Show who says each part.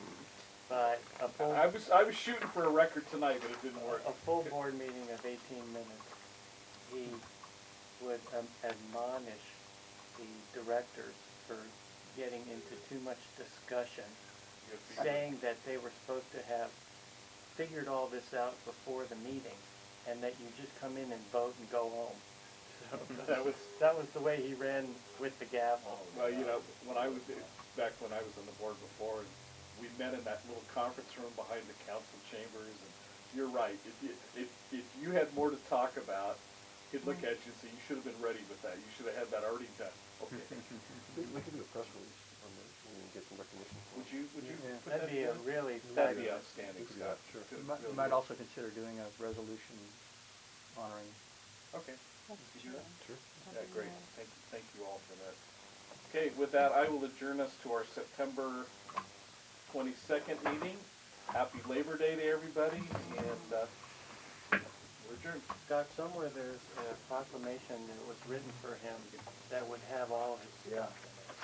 Speaker 1: full,
Speaker 2: I was I was shooting for a record tonight, but it didn't work.
Speaker 1: a full board meeting of eighteen minutes, he would um, admonish the directors for getting into too much discussion, saying that they were supposed to have figured all this out before the meeting, and that you just come in and vote and go home. So,
Speaker 2: That was
Speaker 1: That was the way he ran with the gavel.
Speaker 2: well, you know, when I was back when I was on the board before, and we met in that little conference room behind the council chambers. And you're right. If you, if if you had more to talk about, he'd look at you and say, "You should have been ready with that. You should have had that already done." Okay.
Speaker 3: We we can do a press release on this, when we get some recognition. for
Speaker 2: would
Speaker 3: it.
Speaker 2: you would you
Speaker 4: Yeah.
Speaker 2: put
Speaker 1: That'd
Speaker 2: that
Speaker 1: be a
Speaker 2: together?
Speaker 1: really
Speaker 2: That'd be
Speaker 1: fabulous-
Speaker 2: outstanding
Speaker 3: We could do
Speaker 2: stuff.
Speaker 3: that, sure.
Speaker 2: Good,
Speaker 4: You might,
Speaker 2: really
Speaker 4: you might
Speaker 2: good.
Speaker 4: also consider doing a resolution honoring.
Speaker 2: Okay. Did you-
Speaker 3: Sure.
Speaker 2: Yeah, great. Thank, thank you all for that. Okay, with that, I will adjourn us to our September twenty-second meeting. Happy Labor Day to everybody, and, uh, we're adjourned.
Speaker 1: Scott, somewhere there's a proclamation that was written for him that would have on